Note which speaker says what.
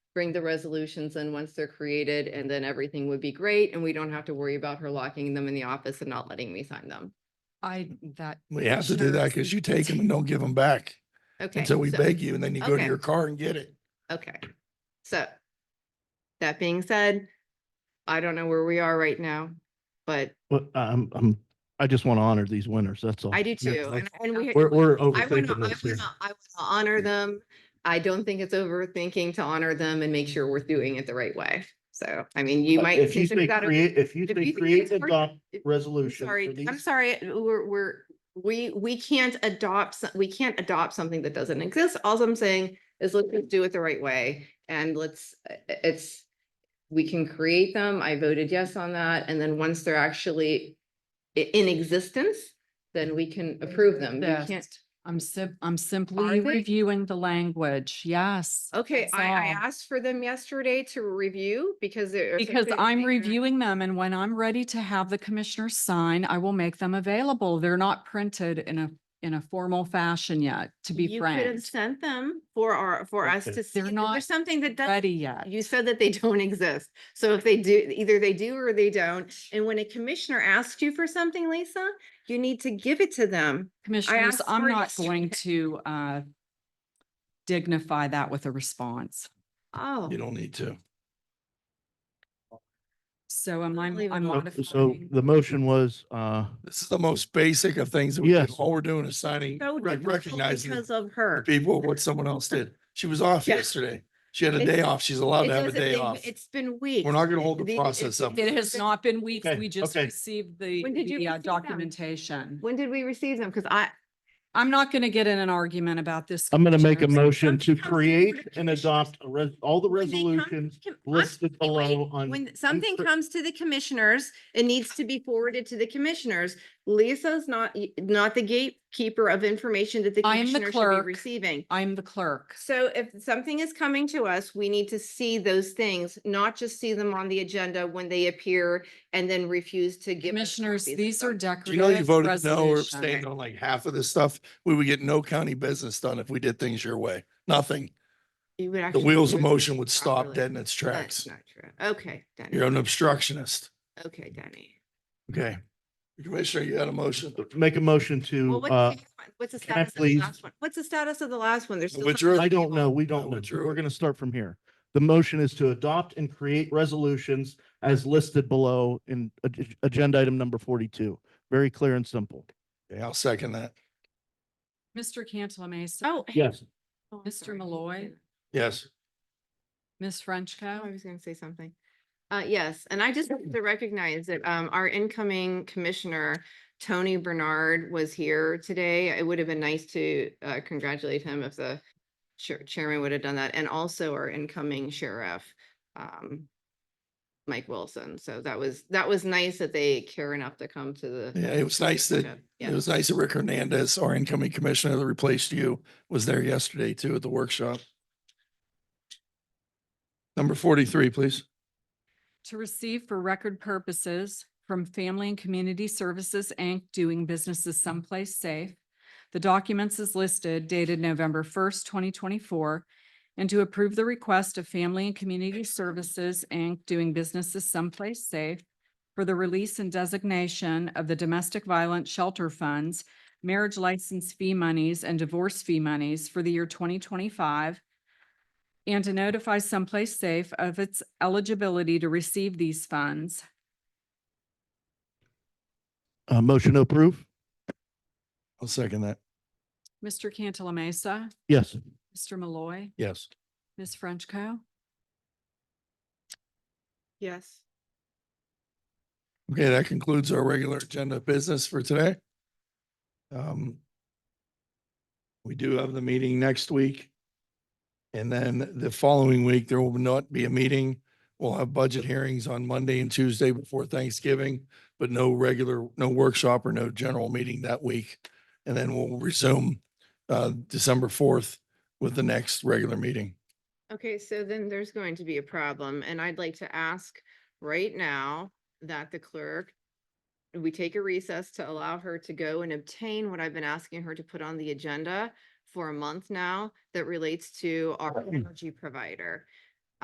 Speaker 1: bring the resolutions in once they're created and then everything would be great and we don't have to worry about her locking them in the office and not letting me sign them.
Speaker 2: I, that.
Speaker 3: We have to do that because you take them and don't give them back
Speaker 1: Okay.
Speaker 3: until we
Speaker 1: so-
Speaker 3: beg you and then you go to
Speaker 1: okay.
Speaker 3: your car and get it.
Speaker 1: Okay, so that being said, I don't know where we are right now, but
Speaker 4: But I'm, I'm, I just want to honor these winners. That's all.
Speaker 1: I do
Speaker 4: Oh, Yeah,
Speaker 1: too.
Speaker 4: I-
Speaker 1: and- And we.
Speaker 4: We're, we're
Speaker 1: I want to, I
Speaker 4: overthinking
Speaker 1: want
Speaker 4: this here.
Speaker 1: to, I want to honor them. I don't think it's overthinking to honor them and make sure we're doing it the right way. So, I mean, you
Speaker 4: Uh,
Speaker 1: might.
Speaker 4: If you
Speaker 1: consider
Speaker 4: say
Speaker 1: that a-
Speaker 4: create, if you
Speaker 1: if
Speaker 4: say
Speaker 1: you think
Speaker 4: create
Speaker 1: it's
Speaker 4: and
Speaker 1: worth-
Speaker 4: adopt
Speaker 1: if- I'm
Speaker 4: resolution. for
Speaker 1: Sorry, I'm
Speaker 4: these-
Speaker 1: sorry, we're, we're, we, we can't adopt, so- we can't adopt something that doesn't exist. All I'm saying is let's just do it the right way and let's, i- i- it's, we can create them. I voted yes on that. And then once they're actually i- in existence, then we can approve them. We can't,
Speaker 2: Yes. I'm sim- I'm
Speaker 1: they?
Speaker 2: simply reviewing the language. Yes.
Speaker 1: okay,
Speaker 2: that's
Speaker 1: I, I
Speaker 2: all.
Speaker 1: asked for them yesterday to review because they're.
Speaker 2: Because I'm reviewing them and when I'm ready to have the commissioners sign, I will make them available. They're not printed in a, in a formal fashion yet, to be
Speaker 1: You could have
Speaker 2: frank.
Speaker 1: sent them for our, for us
Speaker 4: Okay.
Speaker 1: to see.
Speaker 2: They're
Speaker 1: There's
Speaker 2: not
Speaker 1: something that doesn't
Speaker 2: Ready yet.
Speaker 1: Uh, You said that they don't exist. So if they do, either they do or they don't. And when a commissioner asks you for something, Lisa, you need to give it to them.
Speaker 2: Commissioners,
Speaker 1: asked
Speaker 2: I'm
Speaker 1: for
Speaker 2: not
Speaker 1: yesterday.
Speaker 2: going to uh dignify that with a response.
Speaker 1: Oh,
Speaker 3: You don't need to.
Speaker 2: So am I, I'm
Speaker 1: Unbelievable.
Speaker 4: So- So
Speaker 2: modifying.
Speaker 4: the motion was, uh,
Speaker 3: This is the most basic of things. that we do.
Speaker 4: Yes.
Speaker 3: All we're doing is signing,
Speaker 1: so
Speaker 3: rec-
Speaker 1: difficult
Speaker 3: recognizing
Speaker 1: because of
Speaker 3: the
Speaker 1: her.
Speaker 3: people, what someone else did. She was off
Speaker 1: Yeah.
Speaker 3: yesterday. She had a
Speaker 1: It-
Speaker 3: day off. She's allowed
Speaker 1: It
Speaker 3: to have a
Speaker 1: doesn't-
Speaker 3: day
Speaker 1: it-
Speaker 3: off.
Speaker 1: It's been weeks.
Speaker 3: We're not gonna hold the
Speaker 1: The-
Speaker 3: process up.
Speaker 2: It has not been weeks.
Speaker 4: Okay,
Speaker 2: We just
Speaker 4: okay.
Speaker 2: received the
Speaker 1: When did you
Speaker 2: the, uh,
Speaker 1: receive them?
Speaker 2: documentation.
Speaker 1: When did we receive them? Because I,
Speaker 2: I'm not going to get in an argument about this.
Speaker 4: I'm going to make a
Speaker 2: commissioners.
Speaker 4: motion to
Speaker 1: something comes before
Speaker 4: create
Speaker 1: the
Speaker 4: and adopt a res- all the
Speaker 1: When they come-
Speaker 4: resolutions
Speaker 1: com- I'm
Speaker 4: listed below on.
Speaker 1: when something
Speaker 4: uncr-
Speaker 1: comes to the commissioners, it needs to be forwarded to the commissioners. Lisa's not, not the gatekeeper of information that the
Speaker 2: I am the
Speaker 1: commissioner should be
Speaker 2: clerk.
Speaker 1: receiving.
Speaker 2: I'm the clerk.
Speaker 1: So if something is coming to us, we need to see those things, not just see them on the agenda when they appear and then refuse to give. us
Speaker 2: Commissioners,
Speaker 1: copies of
Speaker 2: these are
Speaker 1: them.
Speaker 3: Do you know you
Speaker 2: decorative
Speaker 3: voted no or
Speaker 2: resolutions.
Speaker 3: abstained on like half of this stuff? We would get no county business done if we did things your way. Nothing.
Speaker 1: You would
Speaker 3: The
Speaker 1: actually
Speaker 3: wheels of
Speaker 1: do it
Speaker 3: motion would stop
Speaker 1: properly.
Speaker 3: dead in its
Speaker 1: That's
Speaker 3: tracks.
Speaker 1: not true. Okay,
Speaker 3: You're
Speaker 1: Danny.
Speaker 3: an obstructionist.
Speaker 1: Okay, Danny.
Speaker 3: Okay. Commissioner, you had a motion.
Speaker 4: Make a motion to,
Speaker 1: Well, what's the
Speaker 4: uh,
Speaker 1: other one? what's the
Speaker 4: can I
Speaker 1: status of the
Speaker 4: please-
Speaker 1: last one? What's the status of the last one? There's. still
Speaker 3: What's
Speaker 1: something
Speaker 3: your-
Speaker 4: I
Speaker 1: on the
Speaker 4: don't
Speaker 1: table.
Speaker 4: know. We
Speaker 3: I
Speaker 4: don't know.
Speaker 3: withdrew
Speaker 4: We're
Speaker 3: it.
Speaker 4: going to start from here. The motion is to adopt and create resolutions as listed below in ag- agenda item number forty-two. Very clear and simple.
Speaker 3: Okay, I'll second that.
Speaker 2: Mr. Cantala Mesa,
Speaker 1: Oh.
Speaker 4: Yes.
Speaker 1: oh, I'm
Speaker 2: Mr.
Speaker 1: sorry.
Speaker 2: Malloy.
Speaker 3: Yes.
Speaker 2: Ms.
Speaker 1: Oh, I
Speaker 2: Frenchco.
Speaker 1: was gonna say something. Uh, yes, and I just wanted to recognize that, um, our incoming commissioner, Tony Bernard, was here today. It would have been nice to, uh, congratulate him if the chair- chairman would have done that, and also our incoming sheriff, um, Mike Wilson. So that was, that was nice that they care enough to come to the.
Speaker 3: Yeah, it was nice that, it
Speaker 1: Yeah,
Speaker 3: was nice that Rick Hernandez, our incoming commissioner that replaced you, was there yesterday too at the workshop. Number forty-three, please.
Speaker 2: To receive for record purposes from Family and Community Services, Inc., doing business as someplace safe. The documents is listed dated November first, twenty twenty-four, and to approve the request of Family and Community Services, Inc., doing business as someplace safe for the release and designation of the domestic violence shelter funds, marriage license fee monies, and divorce fee monies for the year twenty twenty-five and to notify someplace safe of its eligibility to receive these funds.
Speaker 4: Uh, motion to approve?
Speaker 3: I'll second that.
Speaker 2: Mr. Cantala Mesa,
Speaker 4: Yes.
Speaker 2: Mr. Malloy,
Speaker 3: Yes.
Speaker 2: Ms. Frenchco.
Speaker 1: yes.
Speaker 3: Okay, that concludes our regular agenda of business for today. Um, We do have the meeting next week. And then the following week, there will not be a meeting. We'll have budget hearings on Monday and Tuesday before Thanksgiving, but no regular, no workshop or no general meeting that week. And then we'll resume uh, December fourth with the next regular meeting.
Speaker 1: Okay, so then there's going to be a problem, and I'd like to ask right now that the clerk, we take a recess to allow her to go and obtain what I've been asking her to put on the agenda for a month now that relates to our energy provider.